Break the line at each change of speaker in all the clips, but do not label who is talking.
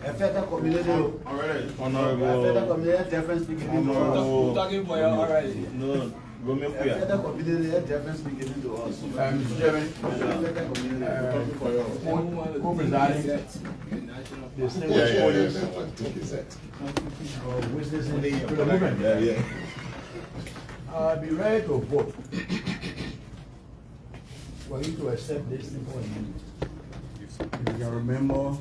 Federal community.
Alright.
Federal
Honorable.
community, different speaking.
Honorable-
to us.
Oh.
Who talking for you already?
No, Romeo
Federal
Kuya.
community, different speaking to us.
Mr. Chairman,
Federal community.
talking for you.
Who
presiding?
National.
distinguished audience.
Oh, Which is in
To the movement.
Yeah, yeah.
I'll be ready to vote. For you to accept this thing for you. If you can remember,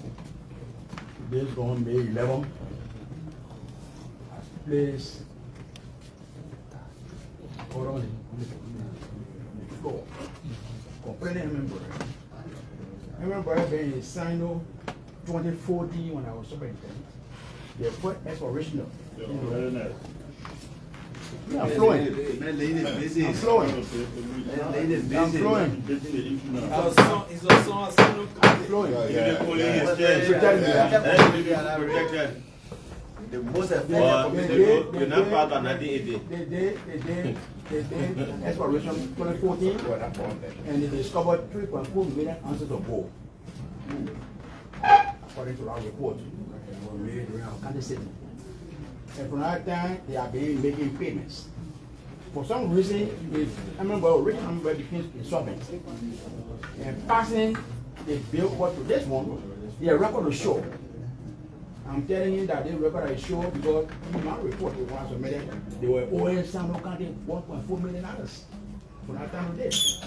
this on May eleven. Place. Or on the- the floor. Complaining member. Remember being signed off twenty fourteen when I was superintendent. They put exploration.
Very nice.
We are flowing.
Man, lady is busy.
I'm flowing.
Man, lady is busy.
I'm flowing.
Getting the issue now.
It's a song, it's a song, it's a
I'm flowing.
Give the police
Yeah.
his chance.
Protect me.
Yeah.
Protect me.
Yeah. Protected.
The most
But
effective
they
community.
go- you're not part of 1980.
They did, they did, they did exploration twenty fourteen, and they discovered three point four million ounces of gold. According to our report, we made around Kansas City. And from that time, they have been making payments. For some reason, if- I remember, Rich Amber became insolvent. And passing the bill over to this one, their record will show. I'm telling you that they record is sure because in my report, they were submitted, they were owing Samuel County one point four million dollars for that time of this.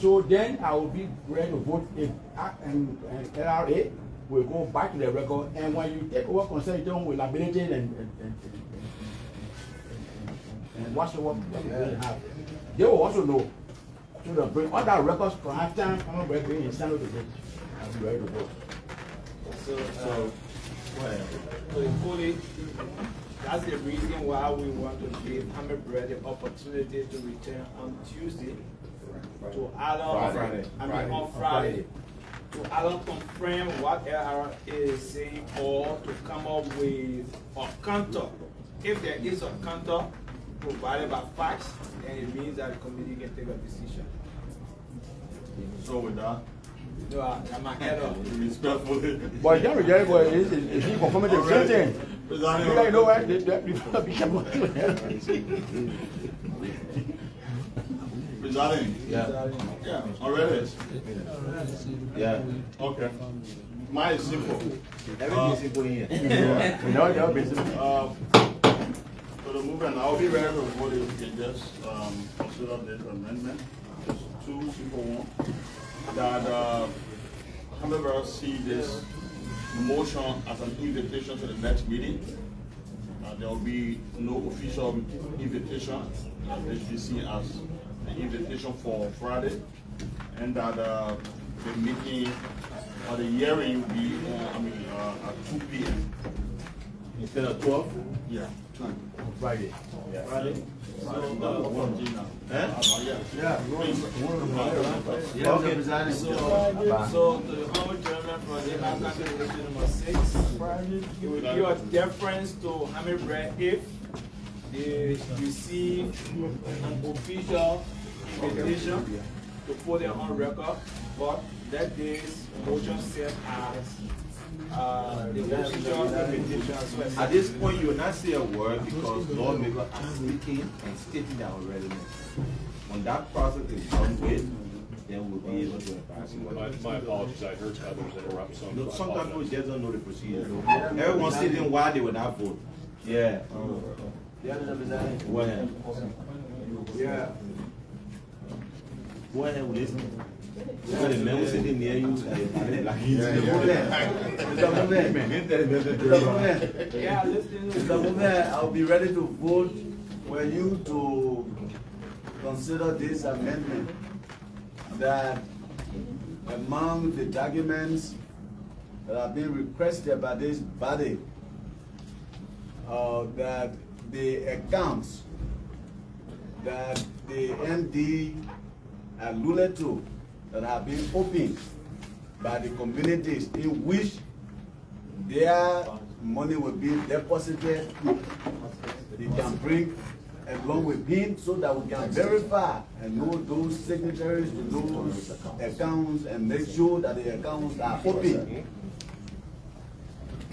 So then I will be ready to vote if, I- um, and, and LRA will go back to the record, and when you take over consulting with liability and, and, and- and, and, and what's the work that we really have, they will also know. So they'll bring all that records, for half time, I'm gonna bring it in Samuel to vote. I'll be ready to vote.
So,
So,
uh, so it's fully, that's the reason why we want to give Hammerbread the opportunity to return on Tuesday to Alan,
Friday.
I mean on Friday. To Alan confirm what LRA is saying or to come up with a counter. If there is a counter provided by facts, then it means that the committee can take a decision.
so with that,
No, I- I'm ahead of.
respectfully.
But John Jerry boy is is is he conforming to the same thing? You
Presiding
guys know
officer.
what? They they they gonna be careful.
Presiding.
Yeah.
Yeah, already. Yeah. Okay. Mine is simple.
Everything is simple in here.
Yeah.
You know, they're busy.
Uh, For the movement, I'll be ready to vote if you can just um, consider this amendment, just two simple one, that uh, Hamburger see this motion as an invitation to the next meeting. Uh, There will be no official invitation, uh, this we see as an invitation for Friday, and that uh, the meeting or the hearing will be, uh, I mean, uh, at two P M.
Instead of twelve?
Yeah, two.
Friday.
Friday? So, uh, one G now. Uh, yeah.
Yeah.
Please.
Yeah, Mr. President.
So to the honorable gentleman from the African Resolution number six, it will give a deference to Hamid Brad if they receive an official invitation to put it on record, but that day's motion set as, uh, the official invitation as well.
At this point, you will not say a word because lawmakers are speaking and stating their readiness. When that process is done with, then we'll be able to advise you.
My, my apologies, I heard others interrupt, so
No,
I
Sometimes people
apologize.
just don't know the procedure. Everyone's sitting why they will not vote. Yeah.
Yeah, Mr. President.
Go ahead.
Yeah.
Go ahead with this. Look at the man who's sitting near you.
Mr. Movement. Mr. Movement. Mr. Movement.
Yeah, listen.
Mr. Movement, I'll be ready to vote for you to consider this amendment that among the documents that have been requested by this body, uh, that the accounts that the MD alluded to that have been opened by the communities in which their money will be deposited. They can bring along with him so that we can verify and know those signatories to those accounts and make sure that the accounts are open.